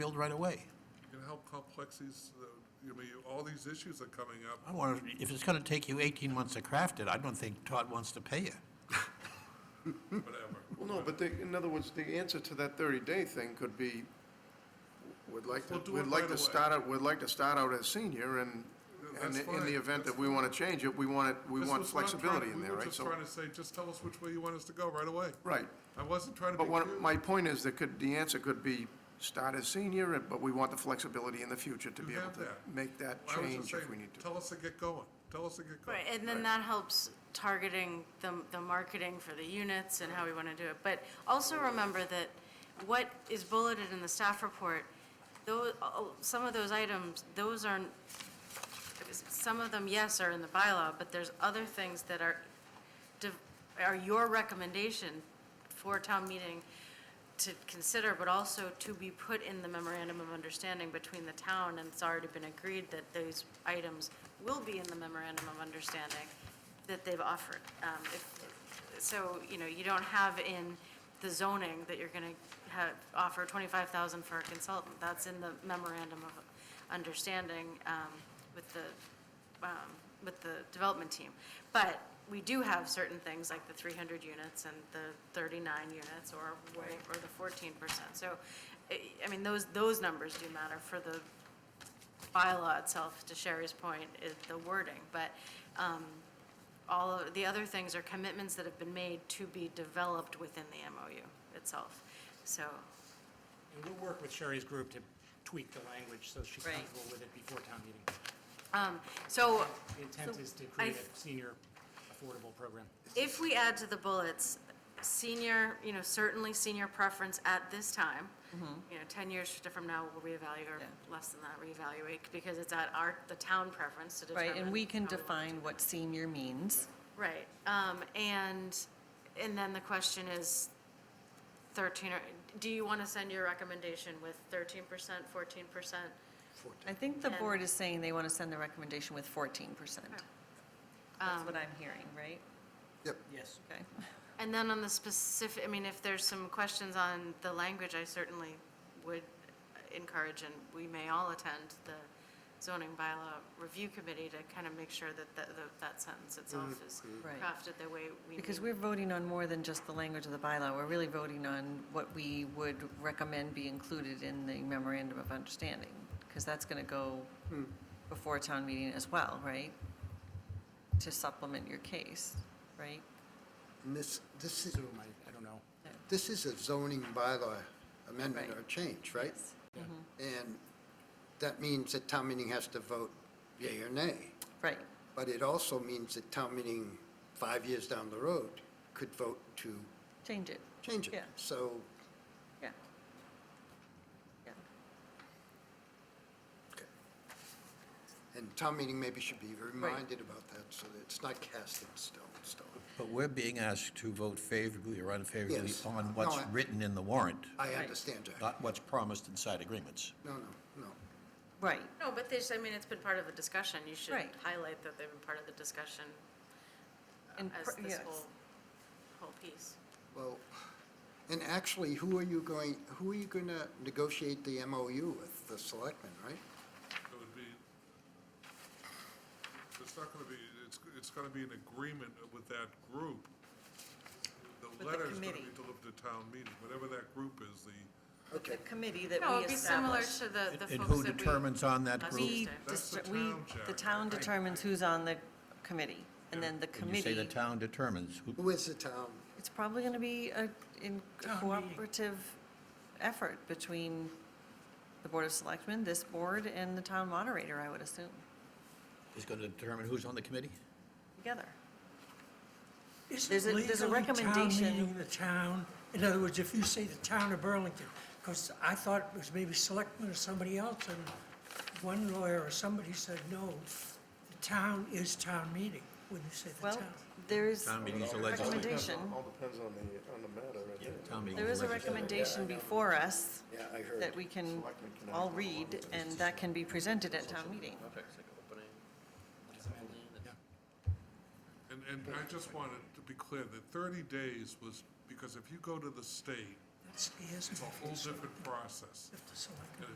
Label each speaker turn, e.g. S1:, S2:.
S1: field right away.
S2: You know how complex these, uh, I mean, all these issues are coming up.
S1: I want, to- if it's going to take you 18 months to craft it, I don't think Todd wants to pay you.
S2: Whatever.
S3: Well, no, but they, in other words, the answer to that 30-day thing could be, we'd like to,
S2: We'll do it
S3: we'd like
S2: right
S3: to
S2: away.
S3: start out, we'd like to start out as senior, and,
S2: Yeah,
S3: and
S2: that's
S3: in the
S2: fine,
S3: event that
S2: that's
S3: we want to change it, we want it, we
S2: This
S3: want
S2: was what I'm
S3: flexibility
S2: trying-
S3: in there,
S2: We were
S3: right?
S2: just
S3: So,
S2: trying to say, just tell us which way you want us to go right away.
S3: Right,
S2: I wasn't trying to be
S3: but what,
S2: cute.
S3: my point is, that could, the answer could be, start as senior, and- but we want the flexibility in the future to
S2: You
S3: be able
S2: have
S3: to
S2: that.
S3: make that
S2: I was just
S3: change if we
S2: saying,
S3: need to.
S2: tell us to get going, tell us to get going.
S4: Right, and then that helps targeting the, the marketing for the units and how we want to do it. But also remember that what is bulleted in the staff report, though, some of those items, those are, some of them, yes, are in the bylaw, but there's other things that are, de- are your recommendation for town meeting to consider, but also to be put in the memorandum of understanding between the town, and it's already been agreed that those items will be in the memorandum of understanding that they've offered. Um, if- So, you know, you don't have in the zoning that you're going to have, offer 25,000 for a consultant. That's in the memorandum of understanding um, with the um, with the development team. But we do have certain things like the 300 units and the 39 units or, wa- or the 14%. So, I I mean, those, those numbers do matter for the bylaw itself, to Sherry's point, is the wording. But um, all of, the other things are commitments that have been made to be developed within the MOU itself. So,
S5: And we'll work with Sherry's group to tweak the language so she's
S4: Right.
S5: comfortable with it before town meeting.
S4: so
S5: The intent
S4: So
S5: is to
S4: I
S5: create
S4: th-
S5: a senior affordable program.
S4: If we add to the bullets, senior, you know, certainly senior preference at this time, you know, 10 years from now, we'll reevaluate, or
S6: Mm-hmm. Yeah.
S4: less than that, reevaluate, because it's at our, the town preference to determine.
S6: Right, and we can
S4: how want to
S6: define what senior means.
S4: Right, um, and, and then the question is thirteen, or, do you wanna send your recommendation with thirteen percent, fourteen percent?
S6: I think the
S4: And-
S6: board is saying they want to send the recommendation with 14%.
S4: Um,
S6: That's what I'm hearing, right?
S5: Yes.
S6: Okay.
S4: And then on the specific, I mean, if there's some questions on the language, I certainly would encourage, and we may all attend the zoning bylaw review committee to kind of make sure that, that, that- that sentence itself is
S6: Right.
S4: crafted the way we need.
S6: Because we're voting on more than just the language of the bylaw. We're really voting on what we would recommend be included in the memorandum of understanding, because that's going to go before town meeting as well, right? To supplement your case, right?
S7: And this, this is,
S5: Zoom, I, I don't know.
S7: this is a zoning bylaw
S6: Right.
S7: amendment
S6: Mm-hmm.
S7: or change, right? And that means that town meeting has to vote yea or nay.
S6: Right,
S7: But it also means that town meeting, five years down the road, could vote to
S6: change it,
S7: change it.
S6: Yeah.
S7: So
S6: yeah. Yeah.
S7: And town meeting maybe should be reminded about that, so that it's not cast in stone, stone.
S1: But we're being asked to vote favorably or unfavorably
S7: Yes.
S1: on what's
S7: No, I-
S1: written in the warrant,
S7: I
S6: Right.
S7: understand, Jack.
S1: not what's promised inside agreements.
S7: No, no, no.
S6: Right,
S4: No, but there's, I mean, it's been part of the discussion, you should
S6: Right.
S4: highlight that they've been part of the discussion uh,
S6: And
S4: as
S6: pr-
S4: this
S6: yes.
S4: whole, whole piece.
S7: Well, and actually, who are you going, who are you going to negotiate the MOU with? The selectmen, right?
S2: It would be, it's not gonna be, it's, it's gonna be an agreement with that group. The
S6: the
S2: letter's gonna be
S6: committee.
S2: delivered to town meeting, whatever that group is, the,
S6: with the committee that
S4: No,
S6: we
S4: it'd be similar
S6: establish.
S4: to the, the folks that we.
S1: And who determines on that
S4: Us
S1: group?
S6: We,
S4: Tuesday.
S2: That's the
S6: dist- we,
S2: town, Jack.
S6: the town determines who's on the committee, and then the
S1: And you say the
S6: committee,
S1: town determines. Who-
S7: Who is the town?
S6: it's probably going to be a, in a
S5: Town meeting.
S6: cooperative effort between the Board of Selectmen, this board, and the town moderator, I would assume,
S1: Is going to determine who's on the committee?
S6: together. There's a-
S8: Isn't
S6: there's a
S8: legally town
S6: recommendation-
S8: meeting the town? In other words, if you say the town of Burlington, because I thought it was maybe selectmen or somebody else, and one lawyer or somebody said, no, the town is town meeting, when you say the
S6: Well,
S8: town.
S6: there is
S1: Town meeting's
S6: a
S1: the legislature.
S6: recommendation,
S3: All depends on the, on the matter, I think.
S1: Town meeting's
S6: there is a
S1: the legislature.
S6: recommendation before us
S7: Yeah, I heard.
S6: that we can
S3: Selectmen can
S6: all
S3: act on
S6: read, and that can be presented at town meeting.
S2: and, and I just wanted to be clear, that thirty days was, because if you go to the state,
S8: That scares me.
S2: it's a whole different process.
S8: If the selectmen-
S2: And